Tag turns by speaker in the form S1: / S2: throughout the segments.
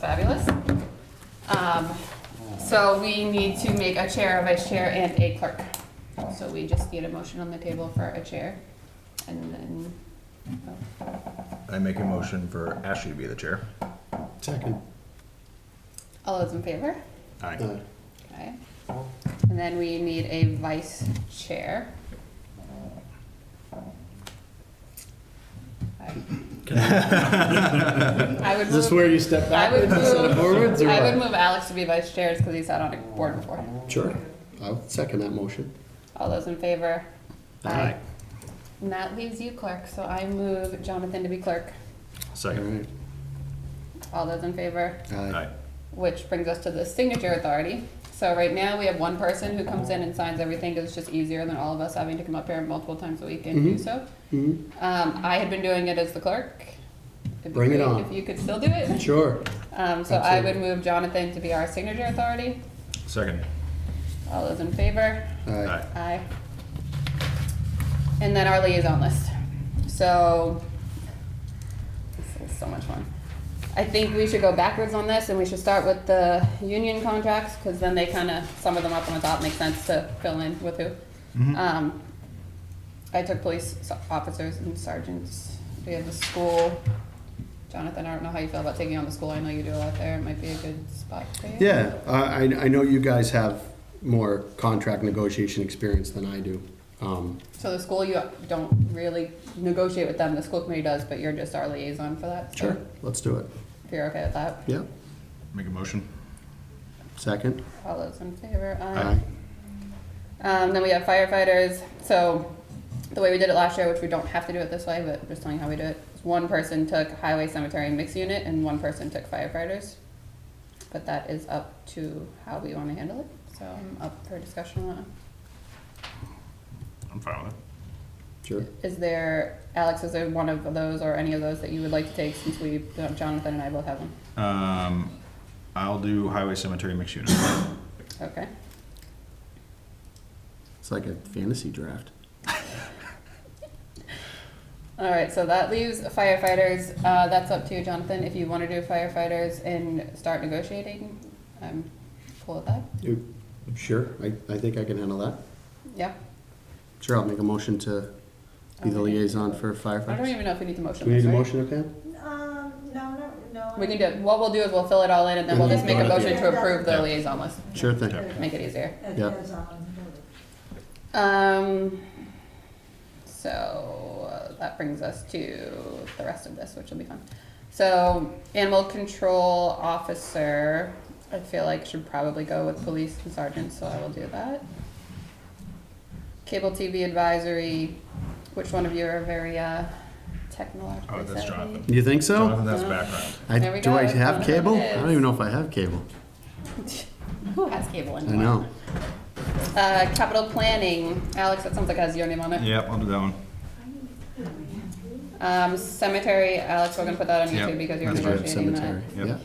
S1: fabulous. Um, So we need to make a chair, a vice chair, and a clerk. So we just need a motion on the table for a chair, and then, oh,
S2: I make a motion for Ashley to be the chair.
S3: Second. uh,
S1: all those in favor?
S2: Aye.
S1: Okay. And then we need a vice chair. I I would
S3: Is this
S1: move,
S3: where you step
S1: I would
S3: backwards instead of
S1: move-
S3: forwards or
S1: I would
S3: what?
S1: move Alex to be vice chair because he sat on a board before.
S3: Sure, I'll second that motion.
S1: All those in favor? And that leaves you clerk, so I move Jonathan to be clerk.
S2: Second.
S1: All those in favor?
S3: Aye.
S2: Aye.
S1: Which brings us to the signature authority. So right now, we have one person who comes in and signs everything, because it's just easier than all of us having to come up here multiple times a week and do so.
S3: Mhm.
S1: Um, I had been doing it as the clerk. It'd be
S3: Bring it
S1: great
S3: on.
S1: If you could still do it.
S3: Sure,
S1: Um, so I would
S3: Absolutely.
S1: move Jonathan to be our signature authority.
S2: Second.
S1: All those in favor?
S3: aye.
S2: Aye.
S1: Aye. And then our liaison list. So, this is so much fun. I think we should go backwards on this and we should start with the union contracts, because then they kind of, sum of them up on the top, makes sense to fill in with who. Um, I took police so- officers and sergeants. We have the school. Jonathan, I don't know how you feel about taking on the school. I know you do a lot there. It might be a good spot for you.
S3: Yeah, I, I I know you guys have more contract negotiation experience than I do. Um,
S1: So the school, you don't really negotiate with them, the school committee does, but you're just our liaison for that? so
S3: Sure, let's do it.
S1: If you're okay with that,
S3: Yeah,
S2: Make a motion.
S3: second.
S1: all those in favor? Um, then we have firefighters, so the way we did it last year, which we don't have to do it this way, but I'm just telling you how we do it. is One person took highway, cemetery, and mixed unit, and one person took firefighters. But that is up to how we wanna handle it, so I'm up for discussion on
S2: I'm fine with it.
S3: Sure.
S1: that. Is there, Alex, is there one of those or any of those that you would like to take since we, Jonathan and I both have them?
S2: Um, I'll do highway cemetery mixed unit. Oh,
S1: Okay.
S3: It's like a fantasy draft.
S1: All right, so that leaves firefighters. Uh, that's up to you, Jonathan, if you want to do firefighters and start negotiating. um, I'm cool with that.
S3: You- Sure, I, I think I can handle that.
S1: Yeah.
S3: Sure, I'll make a motion to be the
S1: Okay.
S3: liaison
S1: I
S3: for
S1: don't
S3: firefighters.
S1: even know if we need to motion
S3: Do we
S1: this,
S3: need a
S1: right?
S3: motion, okay?
S4: Um, no, no, no.
S1: We can do, it. what we'll do is we'll fill it all in and then we'll just make a
S3: Yeah.
S1: motion to approve
S2: Yeah.
S1: the liaison list.
S3: Sure thing.
S2: Yeah.
S1: Make it easier.
S4: It
S3: Yeah.
S4: is on.
S1: Um, so uh, that brings us to the rest of this, which will be fun. So animal control officer, I feel like should probably go with police and sergeant, so I will do that. Cable TV advisory, which one of you are very uh, technologically
S2: Oh, that's
S1: savvy?
S2: Jonathan.
S3: You think so?
S2: Jonathan, that's
S1: No.
S2: background.
S3: I,
S1: There we
S3: do I
S1: go.
S3: have cable? I
S1: Yes.
S3: don't even know if I have cable.
S1: Who has cable
S3: I
S1: anymore?
S3: know.
S1: Uh, capital planning, Alex, that sounds like it has your name on it.
S2: Yep, I'll do that one.
S1: Um, cemetery, Alex, we're gonna put that on
S2: Yep,
S1: YouTube because you're
S2: that's right,
S1: negotiating that.
S3: Cemetery, yeah.
S2: Yep.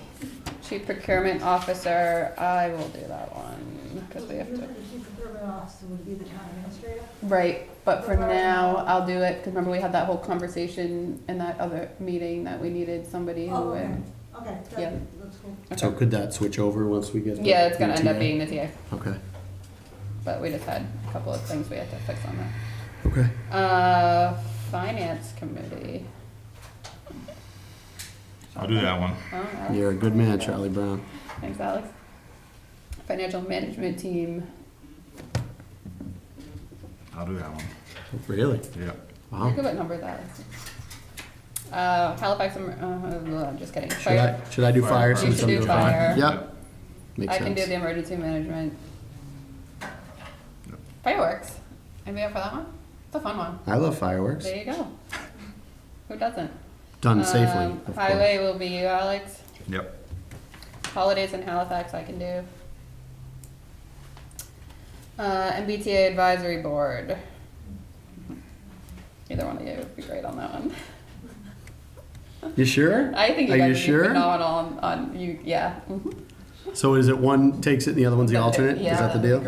S1: Chief procurement officer, I will do that one, because we have to.
S4: The chief procurement officer would be the town administrator.
S1: Right, but for now, I'll do it, because remember we had that whole conversation in that other meeting that we needed somebody who
S4: Oh, okay,
S1: would.
S4: okay,
S1: Yeah.
S4: that, that's cool.
S3: So could that switch over once we get? the
S1: Yeah, it's gonna end up
S3: ETA?
S1: being the TA,
S3: Okay,
S1: but we just had a couple of things we had to fix on that.
S3: okay.
S1: Uh, finance committee.
S2: I'll do that one.
S1: Oh, Alex.
S3: You're a good man, Charlie Brown.
S1: Thanks, Alex. Financial management team,
S2: I'll do that one.
S3: Really?
S2: Yep.
S3: Wow.
S1: Look at what number that is. Uh, Halifax, um, uh, I'm just kidding.
S3: Should
S1: Fire.
S3: I, should I do
S2: Fire
S3: fire
S2: department.
S3: since
S1: You should
S3: I'm
S1: do
S3: doing fire?
S1: fire.
S3: Yep, makes
S1: I
S3: sense.
S1: can do the emergency management.
S2: Yep.
S1: Fireworks. Anybody up for that one? It's a fun one.
S3: I love fireworks,
S1: There you go. Who doesn't?
S3: done safely,
S1: Um,
S3: of course.
S1: Highway will be you, Alex.
S2: Yep.
S1: Holidays in Halifax I can do. Uh, MBTA advisory board. Either one of you would be great on that one.
S3: You sure?
S1: I think you
S3: Are
S1: guys
S3: you
S1: would
S3: sure?
S1: be phenomenal on, on you. Yeah. Mhm.
S3: So is it one takes it and the other one's the alternate? Is that the deal?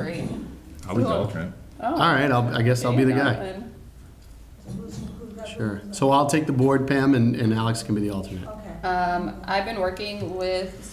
S2: I'll be the
S1: Cool.
S2: alternate.
S1: Oh.
S3: All right, I'll, I guess I'll be the guy.
S4: So who's- who's got-
S3: Sure.
S4: who's
S3: So I'll take the board, Pam, and, and Alex can be the alternate.
S4: got- Okay.
S1: Um, I've been working with